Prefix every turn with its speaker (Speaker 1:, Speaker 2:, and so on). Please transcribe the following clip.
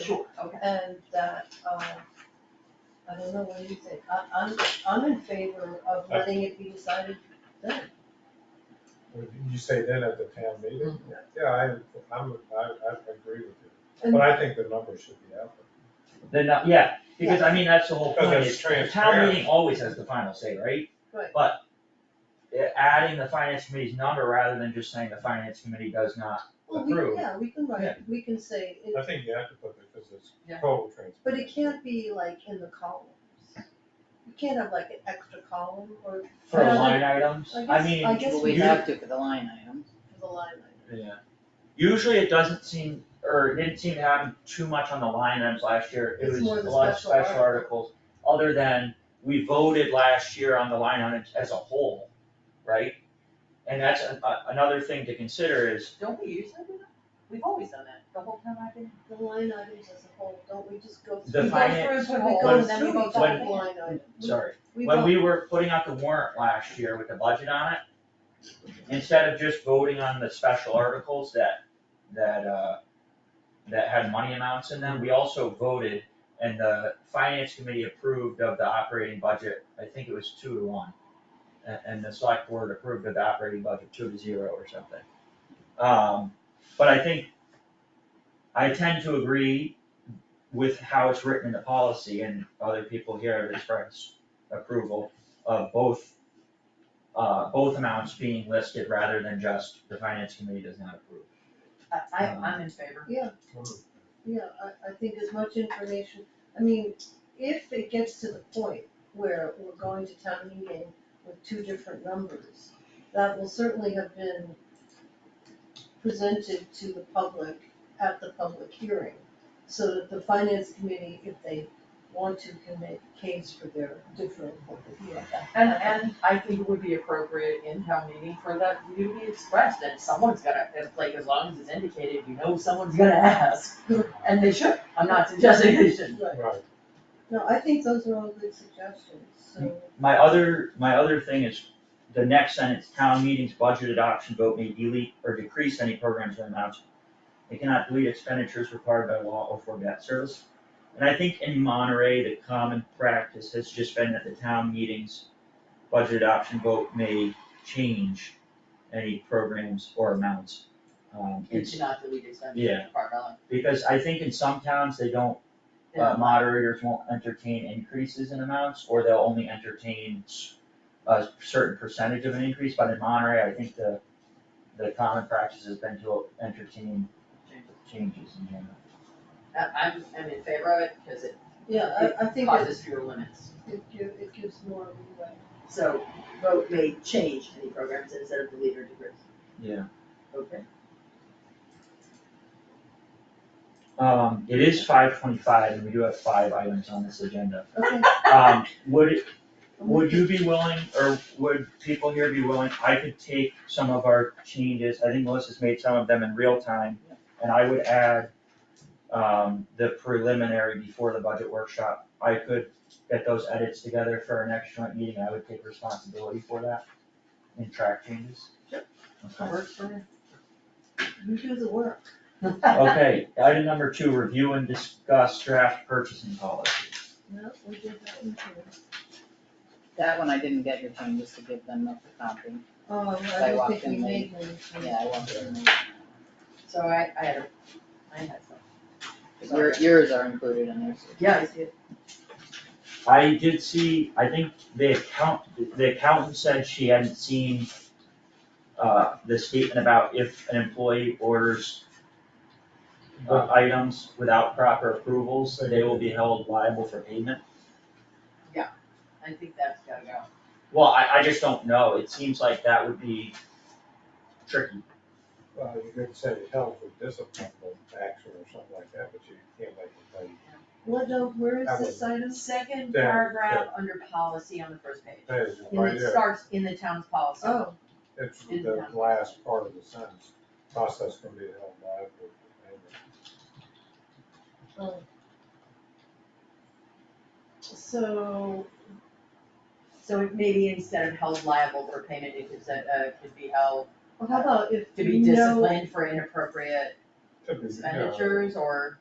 Speaker 1: Sure.
Speaker 2: Okay.
Speaker 1: And that, um, I don't know, what do you think? I, I'm, I'm in favor
Speaker 3: Uh,
Speaker 1: of
Speaker 4: I-
Speaker 1: letting it be decided then.
Speaker 4: You say then at the town meeting?
Speaker 1: Mm-hmm.
Speaker 4: Yeah, I, I'm, I, I agree with you,
Speaker 1: And-
Speaker 4: but I think the number should be out
Speaker 3: Then, uh, yeah, because I mean, that's the whole
Speaker 4: Because
Speaker 3: point,
Speaker 4: it's
Speaker 3: is the town
Speaker 4: transparent.
Speaker 3: meeting always has the final say, right?
Speaker 1: Right.
Speaker 3: But uh, adding the finance committee's number rather than just saying the finance committee does not
Speaker 1: Well, we,
Speaker 3: Approve.
Speaker 1: yeah, we can
Speaker 3: Yeah.
Speaker 1: write, we can say,
Speaker 4: there. I
Speaker 1: it,
Speaker 4: think you have to put it because it's
Speaker 2: Yeah.
Speaker 4: total transparency.
Speaker 1: but it can't be like in the columns. You can't have like an extra column or
Speaker 3: for
Speaker 1: Yeah,
Speaker 3: line items,
Speaker 1: I
Speaker 3: I
Speaker 1: guess-
Speaker 3: mean.
Speaker 1: I guess
Speaker 5: Well, we
Speaker 3: you-
Speaker 5: have to for the line item.
Speaker 1: for the line item.
Speaker 3: Yeah. Usually it doesn't seem, or it didn't seem to happen too much on the line items last year, it
Speaker 1: It's
Speaker 3: was
Speaker 1: more the
Speaker 3: a lot of
Speaker 1: special
Speaker 3: special
Speaker 1: article.
Speaker 3: articles, other than we voted last year on the line items as a whole, right? And that's a, a- another thing to consider is,
Speaker 2: Don't we usually do that? We've always done that, the whole time I've been.
Speaker 1: The line items as a whole, don't we just go
Speaker 3: The
Speaker 1: through?
Speaker 3: fi- finance-
Speaker 2: We
Speaker 1: We
Speaker 2: go
Speaker 1: go
Speaker 2: through
Speaker 1: and then we
Speaker 2: it
Speaker 1: go
Speaker 2: all
Speaker 1: back
Speaker 2: the
Speaker 1: to
Speaker 2: way
Speaker 1: the
Speaker 2: down.
Speaker 1: line item. We-
Speaker 3: sorry,
Speaker 1: We
Speaker 3: when
Speaker 1: vote,
Speaker 3: we were putting out the warrant last year with the budget on it, instead of just voting on the special articles that, that, uh, that had money amounts in them, we also voted, and the finance committee approved of the operating budget, I think it was two to one. A- And, the select board approved of the operating budget two to zero or something. Um, but I think, I tend to agree with how it's written in the policy, and other people here have expressed approval of both uh, both amounts being listed rather than just the finance committee does not approve.
Speaker 2: I, I,
Speaker 5: Uh-huh.
Speaker 2: I'm in favor.
Speaker 1: yeah, I, I think as much information, I mean, if it gets to the point where we're going to town meeting with two different numbers, that will certainly have been presented to the public at the public hearing, so that the finance committee, if they want to, can make a case for their different, you know, that-
Speaker 2: And, and I think it would be appropriate in town meeting for that view to be expressed, and someone's gonna, it's like, as long as it's indicated, you know someone's gonna ask. And they should, I'm not suggesting they shouldn't.
Speaker 1: Right.
Speaker 4: Right,
Speaker 1: No, I think those are all good suggestions, so,
Speaker 3: My other, my other thing is the next sentence, town meeting's budget adoption vote may delete or decrease any programs or amounts. It cannot delete expenditures required by law or for debt service. And I think in Monterey, the common practice has just been that the town meeting's budget adoption vote may change any programs or amounts. Um,
Speaker 2: You
Speaker 3: it's-
Speaker 2: should not delete expenses
Speaker 3: Yeah.
Speaker 2: from our line.
Speaker 3: because I think in some towns, they don't uh, moderators won't entertain increases in amounts, or they'll only entertain s- a certain percentage of an increase, but in Monterey, I think the, the common practice has been to entertain changes in general.
Speaker 2: I, I'm, I'm in favor of it, because it
Speaker 1: yeah, I, I think it,
Speaker 2: causes fewer limits.
Speaker 1: it gives, it gives more leeway.
Speaker 2: So vote may change any programs instead of delete or decrease.
Speaker 3: Yeah.
Speaker 2: Okay.
Speaker 3: Um, it is five twenty-five, and we do have five items on this agenda.
Speaker 1: Okay,
Speaker 3: Um, would, it- would you be willing, or would people here be willing, I could take some of our changes, I think Melissa's made some of them in real time, and I would add um, the preliminary before the budget workshop, I could get those edits together for our next joint meeting, I would take responsibility for that and track changes. Okay.
Speaker 2: Works for me.
Speaker 1: you do the work.
Speaker 3: Okay, item number two, review and discuss draft purchasing policy.
Speaker 1: No, we did that one too.
Speaker 5: That one I didn't get your changes to give them up the copy.
Speaker 1: Oh, I
Speaker 5: They
Speaker 1: don't
Speaker 5: walked
Speaker 1: think we
Speaker 5: in late.
Speaker 1: made one.
Speaker 5: Yeah, I want them.
Speaker 2: So I, I had, a- I had some.
Speaker 5: Your, yours are included in there. so-
Speaker 2: Yeah, I see it.
Speaker 3: I did see, I think the account, the accountant said she hadn't seen uh, the statement about if an employee orders uh, items without proper approvals, they will be held liable for payment.
Speaker 2: I think that's gotta go.
Speaker 3: Well, I, I just don't know, it seems like that would be tricky.
Speaker 4: well, you could say health or discipline or action or something like that, but you can't like anybody
Speaker 1: What, uh, where is
Speaker 4: That
Speaker 1: this
Speaker 2: The
Speaker 1: item?
Speaker 2: second
Speaker 4: Yeah,
Speaker 2: paragraph under policy on the first page.
Speaker 4: pay you
Speaker 2: And
Speaker 4: right
Speaker 2: it
Speaker 4: there.
Speaker 2: starts in the town's policy.
Speaker 1: Oh,
Speaker 4: It's the last part of the sentence, process can be held liable. for payment.
Speaker 1: oh. So,
Speaker 2: So it maybe instead of held liable for payment, it could, say, uh, could be held
Speaker 1: well, how about if
Speaker 2: to be
Speaker 1: no,
Speaker 2: disciplined for inappropriate
Speaker 4: Could be, you know,
Speaker 2: expenditures or